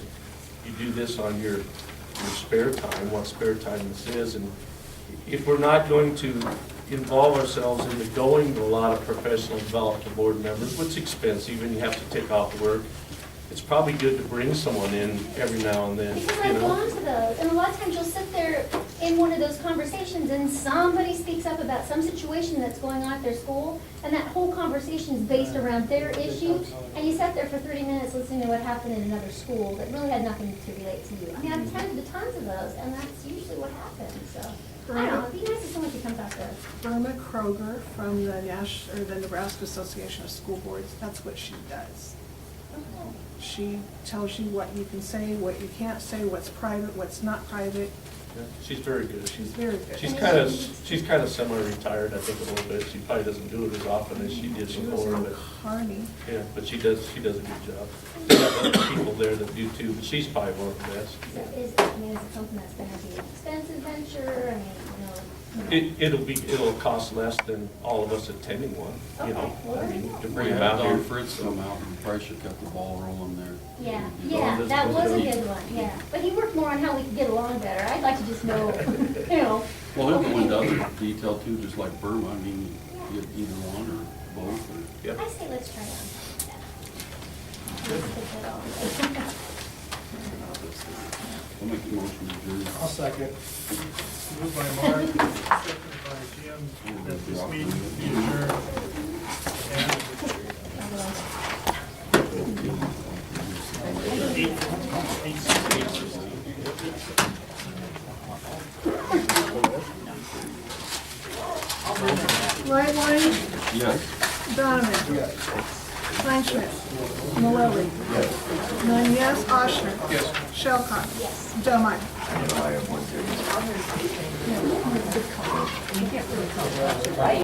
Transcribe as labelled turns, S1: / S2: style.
S1: do this on your, your spare time, what spare time this is, and if we're not going to involve ourselves into going to a lot of professional development to board members, which is expensive, and you have to take off work, it's probably good to bring someone in every now and then,
S2: Because
S1: you
S2: I've
S1: know?
S2: gone to those, and a lot of times you'll sit there in one of those conversations and somebody speaks up about some situation that's going on at their school, and that whole conversation is based around their issue, and you sat there for thirty minutes listening to what happened in another school that really had nothing to relate to you. I mean, I've
S1: Mm-hmm.
S2: attended to tons of those, and that's usually what happens, so. I don't know, it'd be nice if someone could come back there.
S3: Burma Kroger from the Nash, or the Nebraska Association of School Boards, that's what she does. She tells you what you can say, what you can't say, what's private, what's not private.
S1: Yeah, She's very good.
S3: She's very good.
S1: She's kind of, she's kind of semi-retired, I think, a little bit. She probably doesn't do it as often as she did
S3: She was
S1: before,
S3: on
S1: but,
S3: Carney.
S1: yeah, but she does, she does a good job. There's other people there that do too, but she's probably one of the best.
S2: So is, I mean, is it something that's gonna be an expensive venture, I mean, you know?
S1: It, it'll be, it'll cost less than all of us attending one, you know?
S2: Okay, well,
S1: I
S2: there you
S1: mean, to
S2: go. Bring
S1: bring
S2: it
S1: them
S2: back
S1: out
S4: Don
S1: here.
S4: Fritzel Mountain, Price should got the ball rolling there.
S2: Yeah,
S4: You know,
S2: yeah,
S4: this
S2: that
S4: was
S2: was a
S4: really-
S2: good one, yeah. But he worked more on how we could get along better. I'd like to just know, you know.
S4: Well, they're going down to detail too, just like Burma, I mean, you get either one or both, or,
S1: Yep.
S2: I say let's try that.
S4: I'll make the motion to adjourn.
S5: I'll second. Moved by Mark, seconded by Jim, that this meeting be adjourned. And- Eight, eight, six, eight.
S3: Lightline,
S4: Yes.
S3: Donovan. Yes. Kleinschmidt. Mallory. Yes. Nine yes, Oshner. Yes. Shelcock. Yes. Delmeyer.